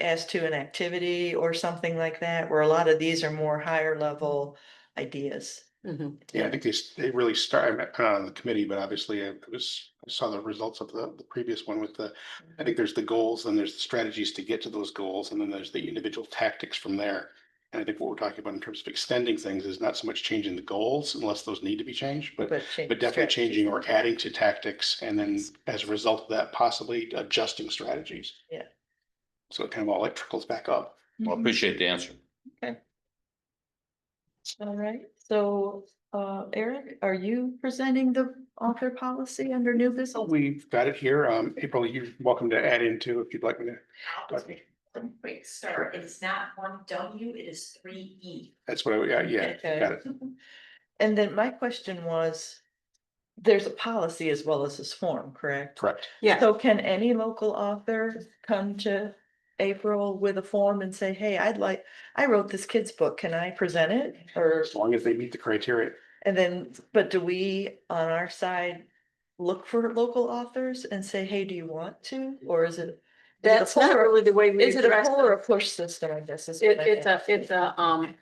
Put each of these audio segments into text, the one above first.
as to an activity or something like that, where a lot of these are more higher level ideas. Mhm. Yeah, I think they, s- they really start, I'm not on the committee, but obviously I was, I saw the results of the, the previous one with the, I think there's the goals, then there's the strategies to get to those goals, and then there's the individual tactics from there. And I think what we're talking about in terms of extending things is not so much changing the goals unless those need to be changed, but, change but definitely strategy. changing or adding to tactics and then as a result of that, possibly adjusting strategies. Yeah. So it kind of all like trickles back up. Well, Mm-hmm. Mhm. appreciate the answer. All right, so uh Eric, are you presenting the author policy under new So business? We've got it here. Um, April, you're welcome to add into if you'd like me to. Okay. One quick start, it is not one W, it is three E. That's what I, yeah, yeah, Okay. got it. And then my question was, there's a policy as well as this form, correct? Correct. Yeah, So can any local author come to April with a form and say, hey, I'd like, I wrote this kid's book, can I present it? Or, As long as they meet the criteria. and then, but do we on our side look for local authors and say, hey, do you want to? Or is it? is it a that's not poll or- really the way we Is it a address pull or it. a push system, I guess? is It, what I it's a, meant. it's a, um,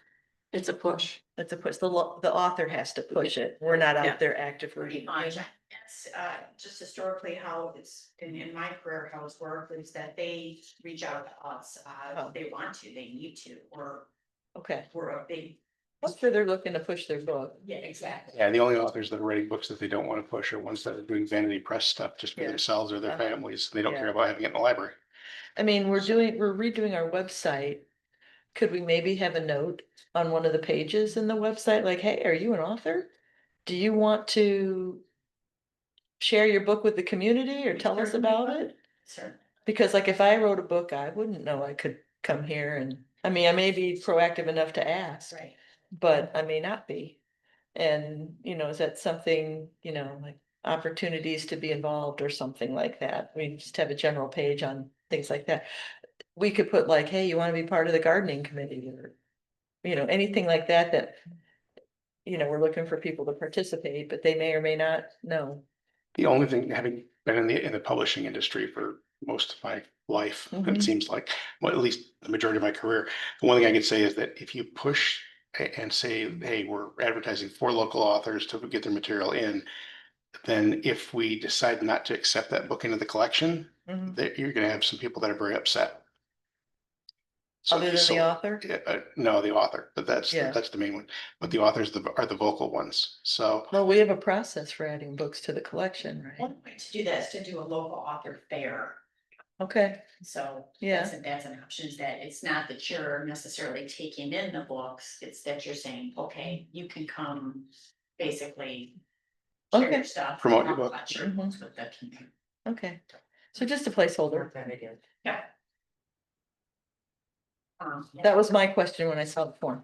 it's a push. It's a push, the lo- the author has to push it, we're not Yeah. out there actively. That's uh just historically how it's in in my career, how it's worked is that they reach out to us, uh Oh. if they want to, they need to, or Okay, we're a big. I'm sure they're looking to push their book. Yeah, exactly. Yeah, the only authors that are writing books that they don't want to push are ones that are doing vanity press stuff just for Yeah. themselves or their Uh-huh. families. They don't Yeah. care about having it in the library. I mean, we're doing, we're redoing our website. Could we maybe have a note on one of the pages in the website, like, hey, are you an author? Do you want to share your book with the community or tell us Certainly about would. it? Certainly. Because like if I wrote a book, I wouldn't know I could come here and, I mean, I may be proactive enough to ask. Right. but I may not be. And, you know, is that something, you know, like opportunities to be involved or something like that? We just have a general page on things like that. We could put like, hey, you want to be part of the gardening committee or, you know, anything like that, that, you know, we're looking for people to participate, but they may or may not know. The only thing, having been in the, in the publishing industry for most of my life, Mhm. it seems like, well, at least the majority of my career. The one thing I could say is that if you push a- and say, hey, we're advertising for local authors to get their material in, then if we decide not to accept that book into the collection, Mhm. that you're gonna have some people that are very upset. So- Other than so- the author, yeah, uh, no, the author, but that's, Yeah. that's the main one, but the authors the- are the vocal ones, so. well, we have a process for adding books to the collection, right? One way to do that is to do a local author fair, Okay, so. yeah, That's, that's an option, is that it's not that you're necessarily taking in the books, it's that you're saying, okay, you can come basically. share your Okay. Mm-hmm. Stuff. Promote your talk book. about your books with the community. okay. So just a placeholder. Yeah. Um, yeah. That was my question when I saw the form.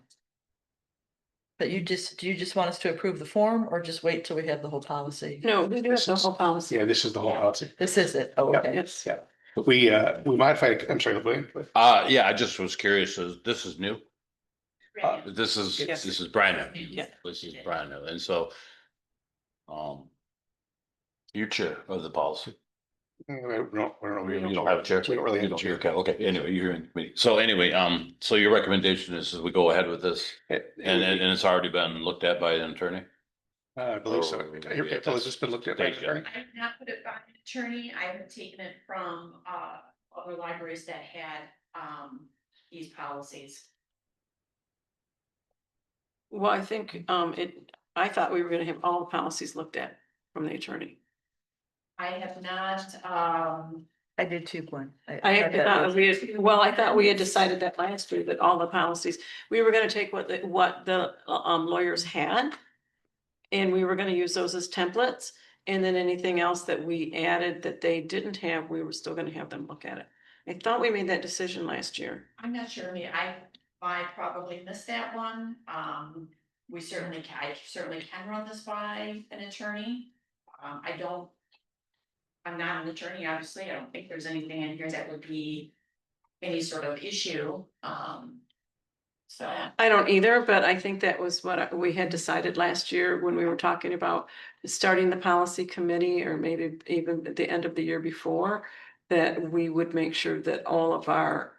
But you just, do you just want us to approve the form or just wait till we have the whole policy? No, we do have the whole policy. Yeah, this is the whole Yeah. policy. This is it, oh, Yeah. okay. Yes. Yeah. We, uh, we modified, I'm sorry, William, but Uh, yeah, I just was curious, is this is new, Right, this is, Yes. this is brand new, Yeah. this is brand new, and so. Um. You're chair of the policy. uh, we don't, we don't. You don't have a chair? We don't really You have a chair. Okay, okay, anyway, you're in committee. So anyway, um, so your recommendation is that we go ahead with this It- it and, would and be- and it's already been looked at by an attorney? Uh, I believe so. Oh, yeah, Here, yeah, April, has this been looked at? by there you go. an attorney? I have not put it by an attorney, I have taken it from, uh, other libraries that had, um, these policies. Well, I think, um, it, I thought we were gonna have all the policies looked at from the attorney. I have not, um, I did two one. I thought that thought was- we, had- well, I thought we had decided that last year that all the policies, we were gonna take what, the what the um lawyers had. And we were gonna use those as templates, and then anything else that we added that they didn't have, we were still gonna have them look at it. I thought we made that decision last year. I'm not sure, I mean, I, I probably missed that one, um, we certainly, ca- I certainly can run this by an attorney. Um, I don't. I'm not an attorney, obviously, I don't think there's anything in here that would be any sort of issue, um. So, I don't either, but I think that was what I- we had decided last year when we were talking about starting the policy committee or maybe even at the end of the year before. That we would make sure that all of our